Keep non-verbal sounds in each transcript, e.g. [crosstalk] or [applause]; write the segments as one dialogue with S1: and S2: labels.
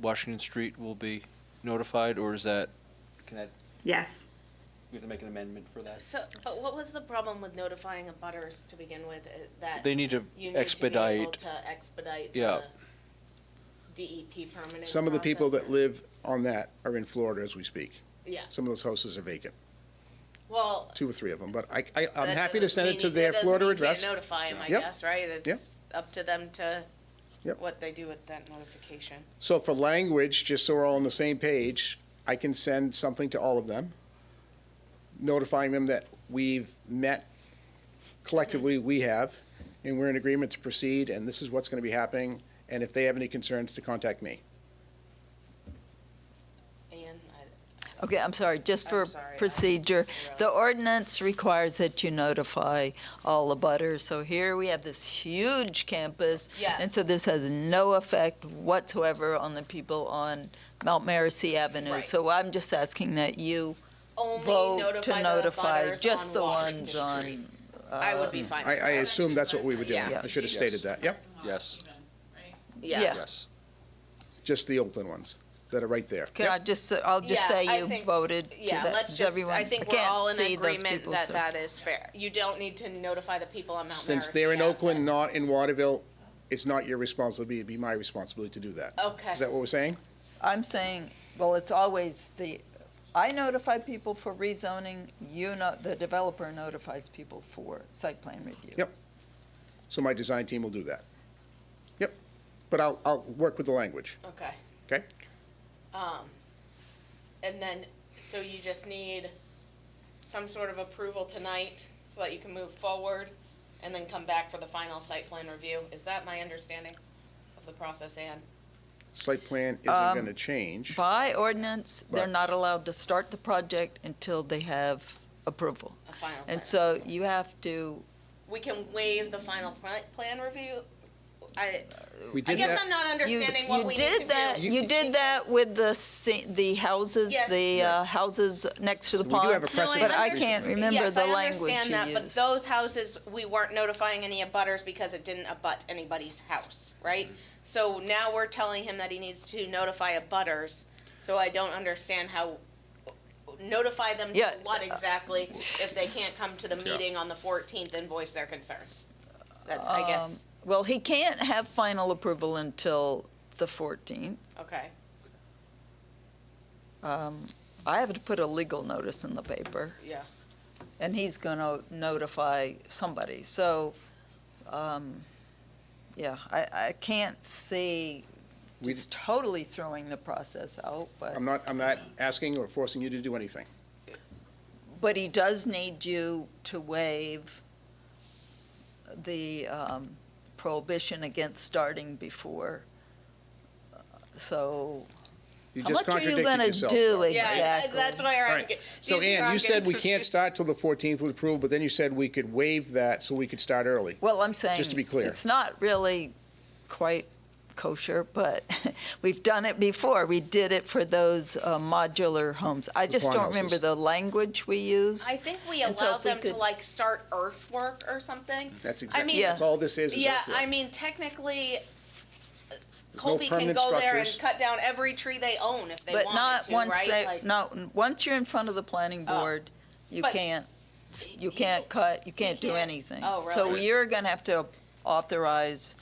S1: Washington Street will be notified, or is that, can I,
S2: Yes.
S1: we have to make an amendment for that?
S3: So, but what was the problem with notifying abutters to begin with, uh, that?
S1: They need to
S3: you need
S1: expedite.
S3: To be able to expedite
S1: Yeah.
S3: the DEP permitting.
S4: Some of the people that
S3: process.
S4: live on that are in Florida as we speak.
S3: Yeah,
S4: Some of those houses are vacant,
S3: well.
S4: two or three of them, but I, I, I'm
S3: that
S4: happy to
S3: doesn't
S4: send it
S3: mean-
S4: to
S3: that
S4: their
S3: doesn't
S4: Florida
S3: mean you can't
S4: address.
S3: Notify them, I
S4: Yep.
S3: guess, right?
S4: Yep.
S3: It's up to them to,
S4: Yep.
S3: what they do with that notification.
S4: So for language, just so we're all on the same page, I can send something to all of them, notifying them that we've met, collectively, we have, and we're in agreement to proceed, and this is what's gonna be happening, and if they have any concerns, to contact me.
S3: Ian, I,
S5: Okay, I'm sorry, just for
S3: I'm sorry, I-
S5: procedure. The ordinance requires that you notify all the butters. So here we have this huge campus.
S3: Yes.
S5: And so this has no effect whatsoever on the people on Mount Mercy Avenue.
S3: Right.
S5: So I'm just asking that you
S3: only
S5: vote to
S3: notify the
S5: notify
S3: abutters
S5: just the
S3: on Washington
S5: ones on.
S3: Street. I would be fine
S4: um, I,
S3: with
S4: I
S3: that.
S4: assume that's what we were doing.
S3: Yeah.
S4: I should have stated that, yep,
S1: Yes,
S5: yeah.
S1: yes.
S4: just the Oakland ones that are right there.
S5: Can I just, say- I'll just
S3: Yeah,
S5: say
S3: I
S5: you
S3: think-
S5: voted to that.
S3: Yeah, let's
S5: Does
S3: just,
S5: everyone-
S3: I think we're
S5: can't
S3: all in
S5: see those
S3: agreement
S5: people,
S3: that
S5: so-
S3: that is fair. You don't need to notify the people on Mount Mercy.
S4: Since they're in
S3: Ave.
S4: Oakland, not in Waterville, it's not your responsibility, it'd be my responsibility to do that.
S3: Okay.
S4: Is that what we're saying?
S5: I'm saying, well, it's always the, I notify people for rezoning, you know, the developer notifies people for site plan review.
S4: Yep. So my design team will do that. Yep. But I'll, I'll work with the language,
S3: Okay.
S4: okay?
S3: Um, and then, so you just need some sort of approval tonight so that you can move forward and then come back for the final site plan review. Is that my understanding of the process, Anne?
S4: Site plan isn't
S5: Um,
S4: going to change.
S5: By ordinance, they're
S4: Right.
S5: not allowed to start the project until they have approval.
S3: A final plan?
S5: And so you have to,
S3: We can waive the final pl- plan review? I,
S4: We
S3: I
S4: did
S3: guess I'm
S4: that,
S3: not
S5: you,
S3: understanding what
S5: you
S3: we need to do.
S5: did that, you did that with the, se- the houses,
S3: Yes.
S5: the uh, houses next to the
S4: We do
S5: pond.
S4: have a
S3: No,
S4: precedent
S5: But I can't
S4: recently.
S5: remember
S3: Yes,
S5: the
S3: I
S5: language you
S3: understand
S5: used.
S3: that, But those houses, we weren't notifying any abutters because it didn't abut anybody's house,
S4: Mm-hmm.
S3: right? So now we're telling him that he needs to notify abutters, so I don't understand how, notify them to
S5: Yeah. uh,
S3: what exactly if they can't come to the meeting on the fourteenth and voice their concerns? That's, I guess,
S5: Um, Well, he can't have final approval until the 14th.
S3: okay,
S5: I have to put a legal notice in the paper,
S3: yeah.
S5: and he's going to notify somebody. So, um, yeah, I, I can't see
S4: We-
S5: just totally throwing the process out, but,
S4: I'm not, I'm not asking or forcing you to do anything.
S5: but he does need you to waive the um, prohibition against starting before. Uh, So,
S4: You
S5: How
S4: just
S5: much are you
S4: contradicted
S5: gonna
S4: yourself.
S5: do
S4: though.
S5: it?
S3: Yeah, I-
S5: Exactly.
S3: that's why
S4: All
S3: I'm.
S4: right.
S3: get-
S4: So
S3: these are-
S4: Ann,
S3: I'm
S4: you said
S3: getting
S4: we can't
S3: confused.
S4: start till the 14th with approval, but then you said we could waive that so we could start early.
S5: Well, I'm saying.
S4: to be clear.
S5: It's not really quite kosher, but [laughs] we've done it before. We did it for those uh, modular homes. I just
S4: pond
S5: don't remember
S4: houses.
S5: the language we used.
S3: I think we
S5: And so
S3: allowed
S5: if we
S3: them to
S5: could-
S3: like start earthwork or something.
S4: That's
S3: I
S4: exactly,
S3: mean,
S4: that's all this is. is
S3: Yeah,
S4: earthwork.
S3: I mean, technically,
S4: There's no
S3: Colby can
S4: permanent
S3: go there and
S4: structures.
S3: cut down every tree they own if they
S5: But
S3: wanted
S5: not
S3: to,
S5: once
S3: right?
S5: they,
S3: Like-
S5: not, once you're in front of the planning
S3: Oh.
S5: board, you
S3: But-
S5: can't, you can't cut, you can't do
S3: can't-
S5: anything.
S3: Oh,
S5: So
S3: really?
S5: you're going to have to authorize,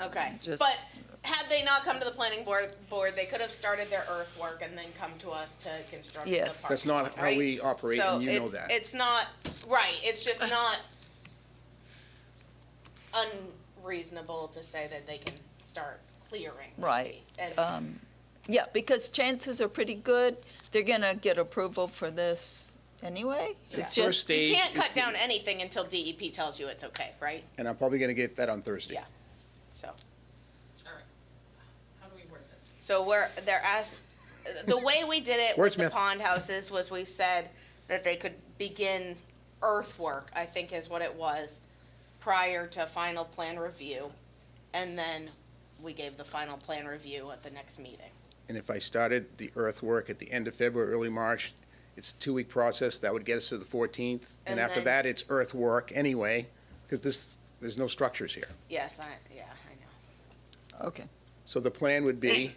S3: Okay,
S5: just-
S3: but had they not come to the planning board, board, they could have started their earthwork and then come to us to construct the
S5: Yes.
S3: park.
S4: That's not how
S3: right?
S4: we operate,
S3: So
S4: and you know
S3: it's-
S4: that.
S3: It's not, right, it's
S5: [sighs]
S3: just not unreasonable to say that they can start clearing.
S5: Right.
S3: And
S5: um, yeah, because chances are pretty good, they're going to get approval for this anyway.
S3: Yeah.
S4: First
S5: It's just,
S4: stage
S3: you can't
S4: is
S3: cut
S4: the-
S3: down anything until DEP tells you it's okay, right?
S4: And I'm probably going to get that on Thursday.
S3: Yeah, so.
S6: All right. How do we word this?
S3: So we're they're asked the way we did it with the
S4: Wordsmith.
S3: pond houses was we said that they could begin earthwork, I think is what it was, prior to final plan review. And then we gave the final plan review at the next meeting.
S4: And if I started the earthwork at the end of February, early March, it's a two-week process, that would get us to the 14th.
S3: And
S4: And after
S3: then-
S4: that, it's earthwork anyway, because this, there's no structures here.
S3: Yes, I yeah, I know.
S5: okay.
S4: So the plan would be.